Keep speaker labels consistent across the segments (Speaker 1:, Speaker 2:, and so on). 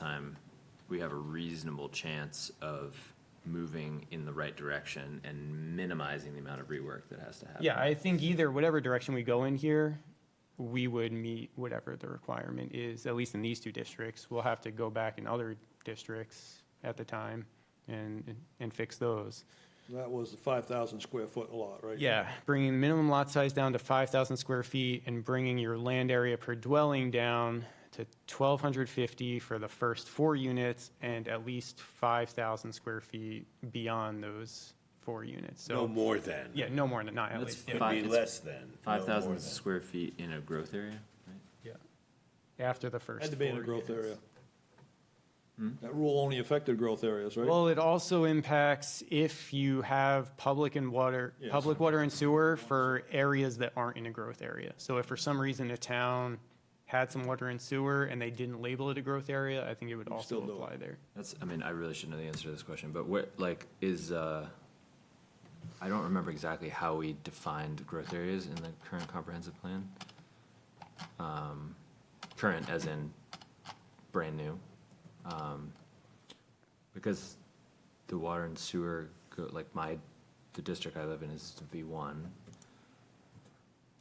Speaker 1: time, we have a reasonable chance of moving in the right direction and minimizing the amount of rework that has to happen.
Speaker 2: Yeah, I think either, whatever direction we go in here, we would meet whatever the requirement is, at least in these two districts. We'll have to go back in other districts at the time and, and fix those.
Speaker 3: That was the five thousand square foot lot, right?
Speaker 2: Yeah, bringing minimum lot size down to 5,000 square feet and bringing your land area per dwelling down to 1,250 for the first four units and at least 5,000 square feet beyond those four units.
Speaker 4: No
Speaker 2: So,
Speaker 4: more than.
Speaker 2: yeah, no more than, not at
Speaker 1: That's
Speaker 2: least.
Speaker 4: It'd
Speaker 1: Five-
Speaker 4: be
Speaker 1: it's
Speaker 4: less than.
Speaker 1: Five thousand
Speaker 4: square.
Speaker 1: square feet in a growth area, right?
Speaker 2: Yeah, after the first.
Speaker 3: Had to be in a
Speaker 2: four
Speaker 3: growth
Speaker 2: units.
Speaker 3: area. That rule only affected growth areas, right?
Speaker 2: Well, it also impacts if you have public and water,
Speaker 3: Yes.
Speaker 2: public water and sewer for areas that aren't in a growth area. So if for some reason a town had some water and sewer and they didn't label it a growth area, I think it would also
Speaker 3: still do it.
Speaker 2: apply there.
Speaker 1: That's, I mean, I really should know the answer to this question, but what, like, is, uh, I don't remember exactly how we defined growth areas in the current comprehensive plan. Um, Current as in brand new. Um, Because the water and sewer, go- like my, the district I live in is V one.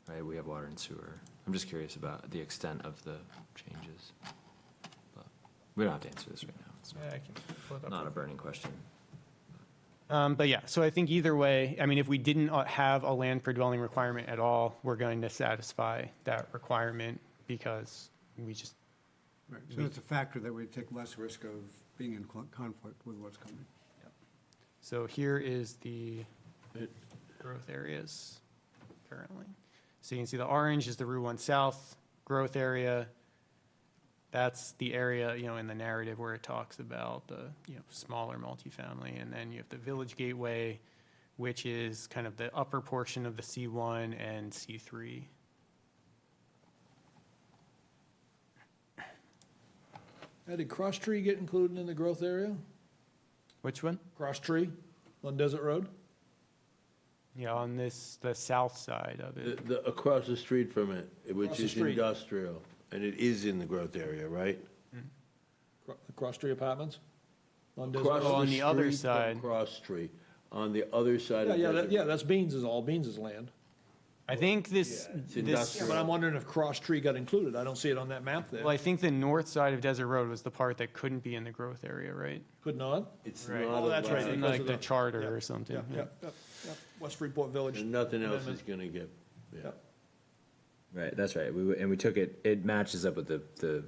Speaker 1: Right, we have water and sewer. I'm just curious about the extent of the changes. But We don't have to answer this right now. It's not- not a burning question.
Speaker 2: Um, but yeah, so I think either way, I mean, if we didn't uh, have a land per dwelling requirement at all, we're going to satisfy that requirement because we just,
Speaker 5: Right, so it's a factor that we take less risk of being in cl- conflict with what's coming.
Speaker 2: So here is the growth areas currently. So you can see the orange is the Route One South growth area. That's the area, you know, in the narrative where it talks about the, you know, smaller multifamily. And then you have the Village Gateway, which is kind of the upper portion of the C1 and C3.
Speaker 3: Now, Did Cross Tree get included in the growth area?
Speaker 2: Which one?
Speaker 3: Cross Tree on Desert Road?
Speaker 2: Yeah, on this, the south side of
Speaker 4: The,
Speaker 2: it.
Speaker 4: the, across the street from it,
Speaker 3: Across
Speaker 4: which
Speaker 3: the
Speaker 4: is
Speaker 3: street.
Speaker 4: industrial, and it is in the growth area, right?
Speaker 3: Cro- the Cross Tree Apartments? On Desert
Speaker 4: Across
Speaker 2: Oh,
Speaker 3: Road?
Speaker 2: on the other
Speaker 4: street from
Speaker 2: side.
Speaker 4: Cross Street, on the other side
Speaker 3: Yeah,
Speaker 4: of.
Speaker 3: yeah,
Speaker 4: Desert
Speaker 3: that- yeah,
Speaker 4: Road.
Speaker 3: that's Beans is all, Beans is land.
Speaker 2: I think this,
Speaker 4: Yeah, it's
Speaker 2: this.
Speaker 4: industrial.
Speaker 3: But I'm wondering if Cross Tree got included. I don't see it on that map
Speaker 2: Well, I
Speaker 3: there.
Speaker 2: think the north side of Desert Road was the part that couldn't be in the growth area, right?
Speaker 3: Could not?
Speaker 4: It's
Speaker 2: Right.
Speaker 4: not
Speaker 3: Oh, that's right,
Speaker 2: It's in
Speaker 4: allowed,
Speaker 3: because
Speaker 2: like
Speaker 3: of
Speaker 2: the
Speaker 3: the- yeah,
Speaker 2: charter or something.
Speaker 3: Yeah,
Speaker 2: yeah.
Speaker 3: yeah, yeah, yeah. West Freeport Village.
Speaker 4: and nothing else is
Speaker 3: Amendment.
Speaker 4: gonna get, yeah.
Speaker 3: Yep.
Speaker 1: Right, that's right. We, w- and we took it, it matches up with the, the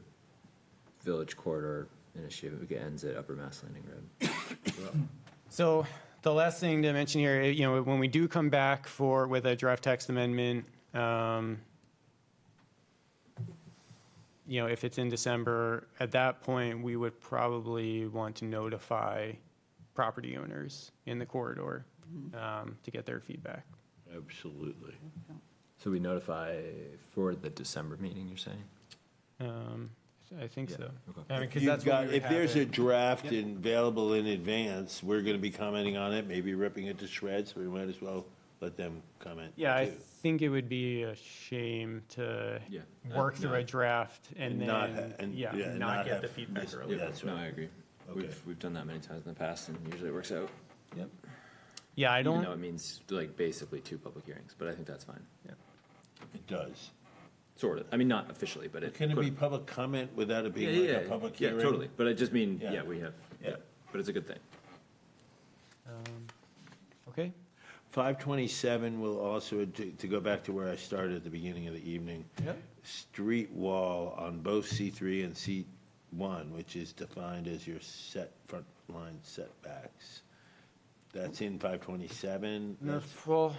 Speaker 1: village corridor initiative. It ends at Upper Mass Landing Road.
Speaker 2: So the last thing to mention here, you know, when we do come back for, with a draft text amendment, um, you know, if it's in December, at that point, we would probably want to notify property owners in the corridor um, to get their feedback.
Speaker 4: Absolutely.
Speaker 1: So we notify for the December meeting, you're saying?
Speaker 2: Um, I think
Speaker 1: Yeah,
Speaker 2: so.
Speaker 1: okay.
Speaker 2: I mean, because
Speaker 4: You've
Speaker 2: that's what
Speaker 4: got-
Speaker 2: we would
Speaker 4: If there's
Speaker 2: have
Speaker 4: a
Speaker 2: it.
Speaker 4: draft and available in advance, we're gonna be commenting on it, maybe ripping it to shreds, we might as well let them comment.
Speaker 2: Yeah, I
Speaker 4: too.
Speaker 2: think it would be a shame to
Speaker 1: Yeah.
Speaker 2: work through a draft and
Speaker 4: And not ha-
Speaker 2: then,
Speaker 4: and-
Speaker 2: yeah,
Speaker 4: yeah, and
Speaker 2: not
Speaker 4: not
Speaker 2: get
Speaker 4: have
Speaker 2: the feedback
Speaker 4: missed-
Speaker 2: early.
Speaker 4: yeah. That's
Speaker 1: No,
Speaker 4: right.
Speaker 1: I agree.
Speaker 4: Okay.
Speaker 1: We've, we've done that many times in the past and usually it works out. Yep.
Speaker 2: Yeah, I
Speaker 1: Even though
Speaker 2: don't,
Speaker 1: it means like basically two public hearings, but I think that's fine.
Speaker 4: It does.
Speaker 1: Sort of. I mean, not officially, but it.
Speaker 4: Can it be
Speaker 1: could-
Speaker 4: public comment without it
Speaker 1: Yeah,
Speaker 4: being
Speaker 1: yeah,
Speaker 4: like a
Speaker 1: yeah.
Speaker 4: public
Speaker 1: Yeah,
Speaker 4: hearing?
Speaker 1: totally. But I just mean,
Speaker 4: Yeah.
Speaker 1: yeah, we have,
Speaker 4: Yeah.
Speaker 1: yeah, but it's a good thing.
Speaker 2: okay.
Speaker 4: 527 will also, to to go back to where I started at the beginning of the evening,
Speaker 2: Yep.
Speaker 4: street wall on both C3 and C1, which is defined as your set, front line setbacks. That's in 527.
Speaker 2: No,
Speaker 4: That's-
Speaker 2: well,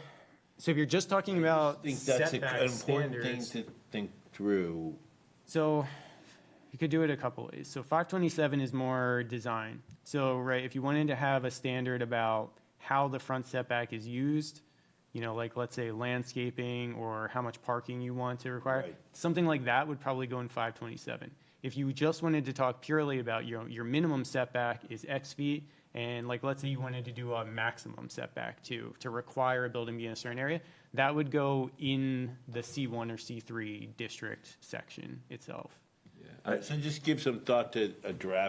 Speaker 2: so if you're just talking
Speaker 4: I
Speaker 2: about
Speaker 4: think that's a- an
Speaker 2: setback
Speaker 4: important thing
Speaker 2: standards,
Speaker 4: to think through.
Speaker 2: so you could do it a couple ways. So five twenty-seven is more design. So, right, if you wanted to have a standard about how the front setback is used, you know, like, let's say landscaping or how much parking you want to require,
Speaker 4: Right.
Speaker 2: something like that would probably go in five twenty-seven. If you just wanted to talk purely about your, your minimum setback is X feet, and like, let's say you wanted to do a maximum setback to, to require a building be in a certain area, that would go in the C one or C three district section itself.
Speaker 1: Yeah,
Speaker 4: So just give some thought to a draft